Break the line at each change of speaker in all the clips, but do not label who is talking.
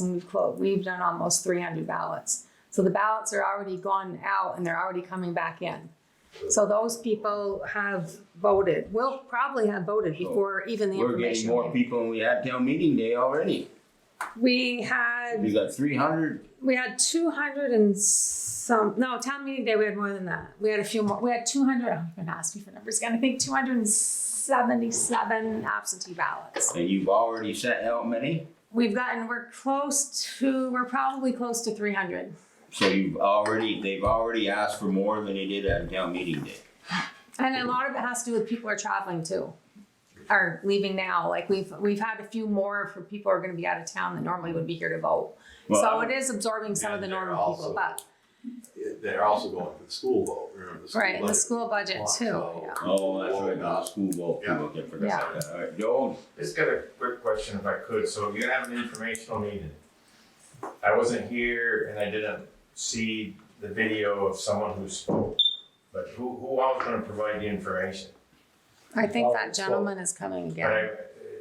and we've closed, we've done almost three hundred ballots. So the ballots are already gone out and they're already coming back in. So those people have voted, will probably have voted before even the
We're getting
information.
more
came.
people than we had town meeting day already.
We had
We got three hundred,
We had two hundred and some, no, town meeting day, we had more than that. We had a few more, we had two hundred, I'm gonna ask you for numbers again, I think two hundred and seventy-seven absentee ballots.
and you've already sent out many,
We've gotten, we're close to, we're probably close to three hundred.
so you've already, they've already asked for more than they did at town meeting day.
And a lot of it has to do with people are traveling too, are leaving now, like we've, we've had a few more for people who are gonna be out of town that normally would be here to vote. So
Well,
it is absorbing some of the
And they're
normal people,
also-
but,
They're also going for the school vote, remember the school
right, and the
budget.
school budget too,
So-
yeah.
Oh, that's right, the school vote,
Yeah.
okay, forgot about that, alright, Joel,
Just got a quick question if I could. So you have an informational meeting. I wasn't here and I didn't see the video of someone who spoke. But who, who else gonna provide the information?
I think that gentleman is coming
But
again.
I-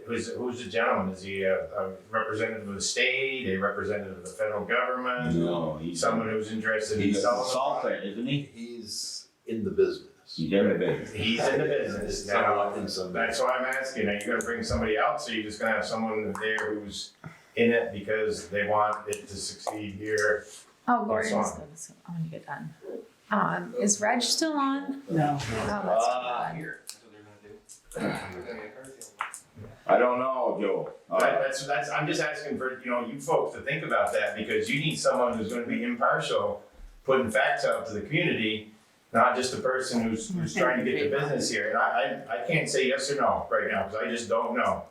Who's, who's the gentleman? Is he a, a representative of the state, a representative of the federal government?
no, he's,
Someone who's interested in
he's
selling?
a
the product?
consultant, isn't he?
He's in the business.
He's everything.
He's in the business now.
Someone in some-
That's why I'm asking, are you gonna bring somebody else, or you just gonna have someone there who's in it because they want it to succeed here?
Oh, Lori
That's
was gonna, say- oh, when you get done. Um, is Reg still on?
No.
Oh, that's
Ah,
too bad.
I don't know, Joel,
That-
alright,
that's, that's, I'm just asking for, you know, you folks to think about that, because you need someone who's gonna be impartial, putting facts out to the community, not just the person who's, who's trying to get the business here, and I, I, I can't say yes or no right now, because I just don't know.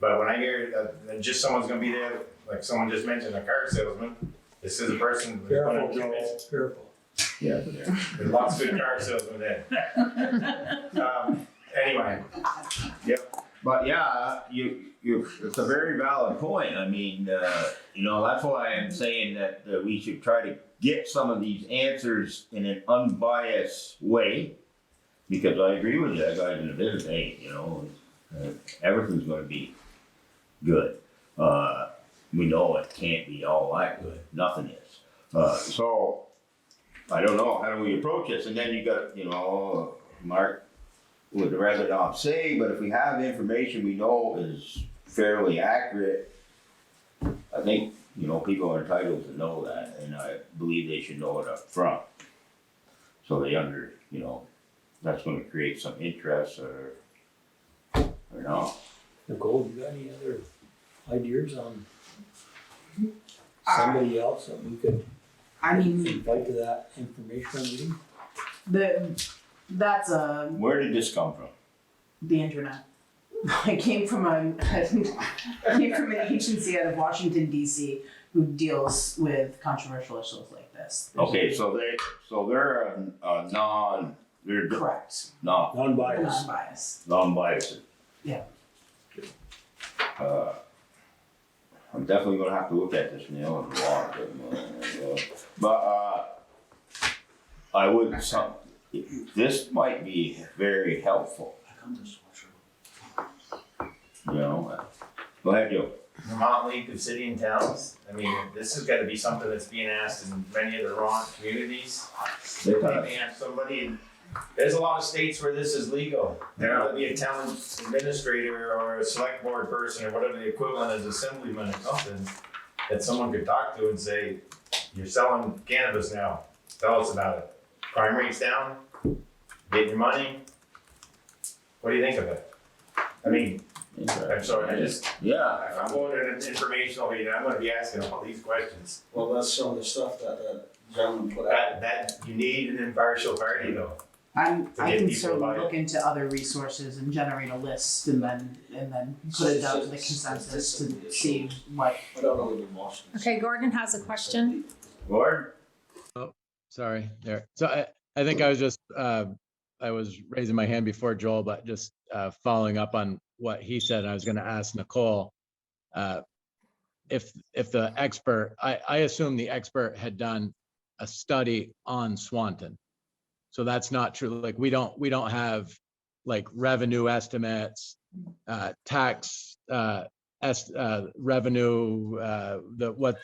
But when I hear, uh, that just someone's gonna be there, like someone just mentioned, a car salesman, this is a person who's gonna
Careful,
do this.
Joel, careful.
yeah, yeah.
There's lots of good car salesmen there. Um, Anyway,
But yeah, you, you, it's a very valid point. I mean, uh, you know, that's why I'm saying that uh, we should try to get some of these answers in an unbiased way. Because I agree with you, that guy's in the business, hey, you know, uh, everything's gonna be good. Uh, we know it can't be all that good, nothing is. Uh, so, I don't know, how do we approach this? And then you got, you know, Mark would rather not say, but if we have information we know is fairly accurate, I think, you know, people are entitled to know that, and I believe they should know it up front. So they under, you know, that's gonna create some interest or, or not.
Nicole, you got any other ideas on somebody else that we could
I mean,
invite to that informational meeting?
the, that's uh,
Where did this come from?
the internet. I came from a I came from an agency out of Washington D.C. who deals with controversial issues like this. There's-
Okay, so they, so they're a, a non, they're
Correct.
not,
Non-biased.
Non-biased.
non-biased.
Yeah.
Uh, I'm definitely gonna have to look at this now and log it, uh, but, uh, I would, some, this might be very helpful, you know? uh, Go ahead, Joe.
Vermont League of City and Towns, I mean, this has gotta be something that's being asked in many of the wrong communities. They may have somebody, in- there's a lot of states where this is legal. There ought to be a town administrator or a select board person or whatever the equivalent is, assemblyman or something, that someone could talk to and say, you're selling cannabis now, tell us about it. Crime rate's down, get your money. What do you think of it? I mean, I'm sorry, I just,
Yeah,
if I'm going to an informational meeting, I'm gonna be asking all these questions.
Well, that's some of the stuff that that gentleman put out.
That, that, you need an impartial party though.
I'm,
To
I
get
can
people
certainly
about it.
look into other resources and generate a list and then, and then put it out to the consensus to see what
Put out a little motion.
Okay, Gordon has a question.
Gord,
Sorry, there. So I, I think I was just, uh, I was raising my hand before Joel, but just, uh, following up on what he said, I was gonna ask Nicole. uh, If, if the expert, I, I assume the expert had done a study on Swanton. So that's not true. Like, we don't, we don't have like revenue estimates, uh, tax, uh, est- uh, revenue, uh, the, what